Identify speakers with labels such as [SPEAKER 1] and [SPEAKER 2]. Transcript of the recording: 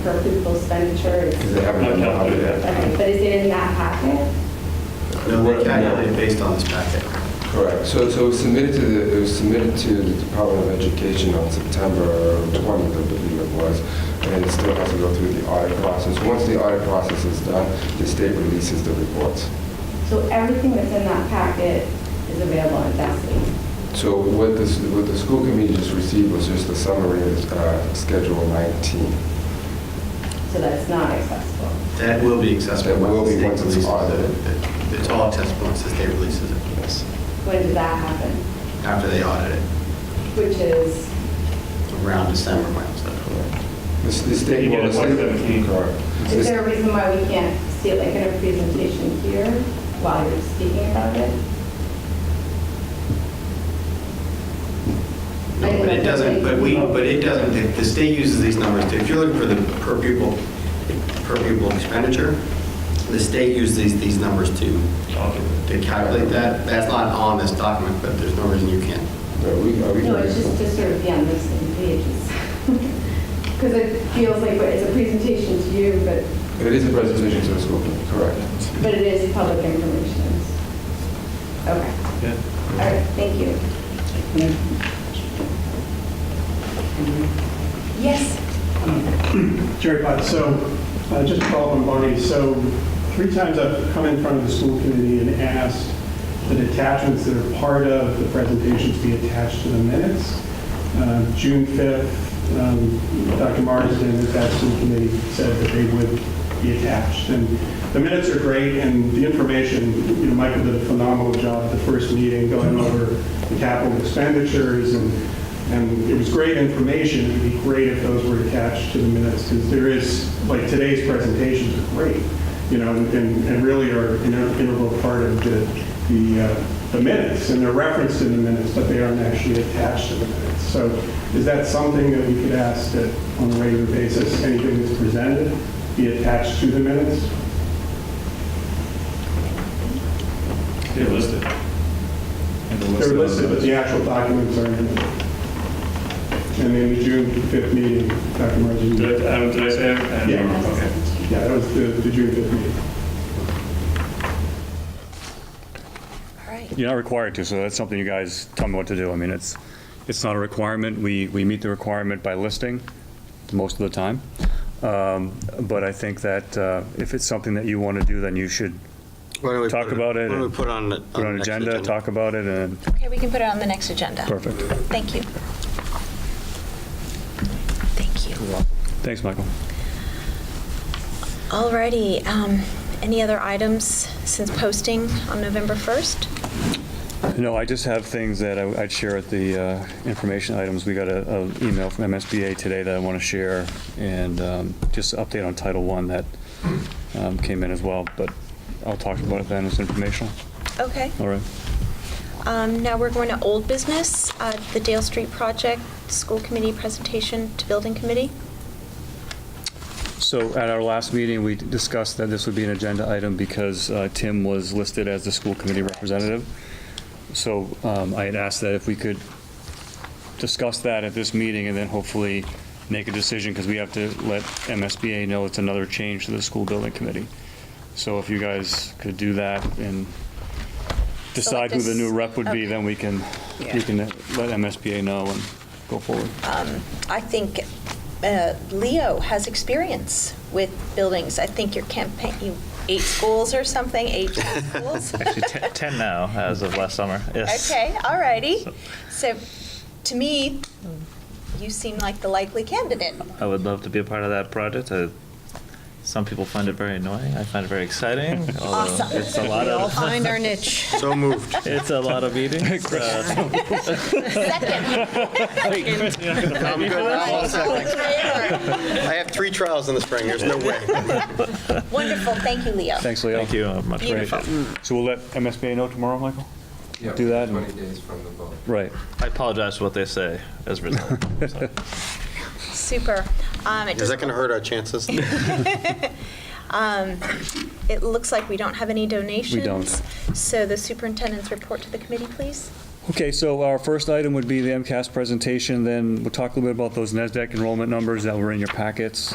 [SPEAKER 1] for people expenditure is,
[SPEAKER 2] Because they haven't
[SPEAKER 3] No,
[SPEAKER 2] been
[SPEAKER 3] don't do
[SPEAKER 2] audited.
[SPEAKER 1] okay, but is it in that packet?
[SPEAKER 4] No,
[SPEAKER 2] Right, no.
[SPEAKER 4] they calculate based on this packet.
[SPEAKER 2] Correct. So, so it was submitted to the, it was submitted to the Department of Education on September 20th, I believe it was, and it still has to go through the audit process. Once the audit process is done, the state releases the reports.
[SPEAKER 1] So everything that's in that packet is available on Destiny.
[SPEAKER 2] So what the, what the school committee just received was just a summary of uh, Schedule 19.
[SPEAKER 1] So that's not accessible.
[SPEAKER 4] That will be accessible.
[SPEAKER 2] That will be
[SPEAKER 4] once the
[SPEAKER 2] once it's
[SPEAKER 4] state releases
[SPEAKER 2] audited.
[SPEAKER 4] it. It- It's all accessible once the state releases it. Yes.
[SPEAKER 1] When did that happen?
[SPEAKER 4] After they audit it,
[SPEAKER 1] Which is,
[SPEAKER 4] around December, my understanding.
[SPEAKER 2] The s- the state.
[SPEAKER 3] You get
[SPEAKER 2] well, the state-
[SPEAKER 3] 117.
[SPEAKER 2] Correct.
[SPEAKER 1] is there a reason why we can't see it like in a presentation here while you're speaking about it?
[SPEAKER 4] No, but it doesn't, but we, but it doesn't, the- the state uses these numbers, too. if you're looking for the per pupil, per pupil expenditure, the state uses these, these numbers to, to calculate that, that's not on this document, but there's no reason you can't.
[SPEAKER 2] Are we, are we?
[SPEAKER 1] No, it's just to sort of be on the same page. Because it feels like it's a presentation to you, but,
[SPEAKER 2] It is a presentation to the school committee, correct.
[SPEAKER 1] but it is public information. Okay, all right, thank you. Yes.
[SPEAKER 5] Jerry Potts, so uh, just to follow up on Bonnie, so three times I've come in front of the school committee and asked that attachments that are part of the presentations be attached to the minutes. Uh, June 5th, um, Dr. Marsden at that school committee said that they would be attached. And the minutes are great and the information, you know, Michael did a phenomenal job at the first meeting going over the capital expenditures and and it was great information, it would be great if those were attached to the minutes, because there is, like, today's presentations are great, you know, and, and really are an integral part of the, the, uh, the minutes, and they're referenced in the minutes, but they aren't actually attached to the minutes. So is that something that we could ask that on a regular basis, anything that's presented be attached to the minutes?
[SPEAKER 3] They're listed.
[SPEAKER 5] They're listed, but the actual documents aren't in it. And in the June 5th meeting, Dr. Martin.
[SPEAKER 3] Did I, um, did I say? it?
[SPEAKER 5] Yeah.
[SPEAKER 3] Okay.
[SPEAKER 5] Yeah, uh, that was the, the June 5th meeting.
[SPEAKER 3] You're not required to, so that's something you guys tell me what to do. I mean, it's, it's not a requirement. We, we meet the requirement by listing most of the time. Um, But I think that uh, if it's something that you want to do, then you should Talk put it- about it why don't we and
[SPEAKER 4] put on?
[SPEAKER 3] put on agenda, talk about it, and,
[SPEAKER 6] Okay, we can put it on the next agenda.
[SPEAKER 3] perfect.
[SPEAKER 6] Thank you. Thank you.
[SPEAKER 3] Thanks, Michael.
[SPEAKER 6] Alrighty, um, any other items since posting on November 1st?
[SPEAKER 3] No, I just have things that I- I'd share at the uh, information items. We got an email from MSBA today that I want to share, and um, just an update on Title I that um, came in as well, but I'll talk about it then, it's informational.
[SPEAKER 6] Okay,
[SPEAKER 3] All right.
[SPEAKER 6] um, now we're going to old business, uh, the Dale Street project, school committee presentation to building committee.
[SPEAKER 3] So at our last meeting, we discussed that this would be an agenda item because uh, Tim was listed as the school committee representative. So um, I had asked that if we could discuss that at this meeting and then hopefully make a decision because we have to let MSBA know it's another change to the school building committee. So if you guys could do that and decide who the new rep would be, then we can,
[SPEAKER 6] Okay.
[SPEAKER 3] we can let MSBA know and go forward.
[SPEAKER 6] I think uh, Leo has experience with buildings. I think your campaign, you, eight schools or something, eight schools?
[SPEAKER 7] Actually, ten, 10 now as of last summer. Yes.
[SPEAKER 6] Okay, all righty. So, to me, you seem like the likely candidate.
[SPEAKER 7] I would love to be a part of that project. Uh, some people find it very annoying. I find it very exciting. although
[SPEAKER 6] Awesome.
[SPEAKER 7] It's a lot
[SPEAKER 8] We'll
[SPEAKER 7] of
[SPEAKER 8] find our niche.
[SPEAKER 4] So moved.
[SPEAKER 7] it's a lot of meetings. Uh,
[SPEAKER 6] Second.
[SPEAKER 4] I'm good. I'm all set. I have three trials in the spring, there's no way.
[SPEAKER 6] Wonderful, thank you, Leo.
[SPEAKER 3] Thanks, Leo.
[SPEAKER 7] thank you. uh, Much
[SPEAKER 3] Great.
[SPEAKER 7] appreciated.
[SPEAKER 3] So we'll let MSBA know tomorrow, Michael?
[SPEAKER 2] Yeah,
[SPEAKER 3] Do that and-
[SPEAKER 2] 20 days from the vote.
[SPEAKER 3] Right.
[SPEAKER 7] I apologize for what they say as a result. So,
[SPEAKER 6] Super. Um, it
[SPEAKER 4] Is
[SPEAKER 6] does-
[SPEAKER 4] that going to hurt our chances?
[SPEAKER 6] It looks like we don't have any donations.
[SPEAKER 3] We don't.
[SPEAKER 6] So the superintendent's report to the committee, please.
[SPEAKER 3] Okay, so our first item would be the MCAS presentation, then we'll talk a little bit about those NASDAQ enrollment numbers that were in your packets.